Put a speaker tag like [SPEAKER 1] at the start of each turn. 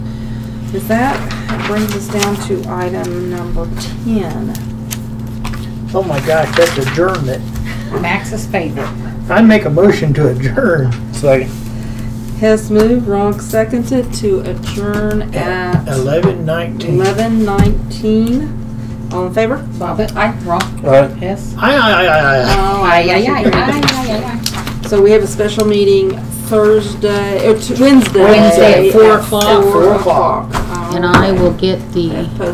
[SPEAKER 1] Does that brings us down to item number ten?
[SPEAKER 2] Oh my gosh, that's adjournment.
[SPEAKER 3] Max's favorite.
[SPEAKER 2] I make a motion to adjourn. Second.
[SPEAKER 1] Hess moved, Ronk seconded to adjourn at
[SPEAKER 2] Eleven nineteen.
[SPEAKER 1] Uh,
[SPEAKER 2] Aye,
[SPEAKER 1] eleven nineteen. All in favor?
[SPEAKER 3] Bobbit. Aye. Wrong.
[SPEAKER 4] Aye.
[SPEAKER 3] Hess.
[SPEAKER 2] aye, aye, aye.
[SPEAKER 1] Oh,
[SPEAKER 3] Aye,
[SPEAKER 1] I
[SPEAKER 3] aye, aye,
[SPEAKER 1] should-
[SPEAKER 3] aye, aye, aye.
[SPEAKER 1] So we have a special meeting Thursday, or t- Wednesday.
[SPEAKER 3] Wednesday at four
[SPEAKER 1] at
[SPEAKER 3] o'clock.
[SPEAKER 1] Four
[SPEAKER 2] Four o'clock.
[SPEAKER 1] o'clock.
[SPEAKER 5] And I will get the.
[SPEAKER 1] All right.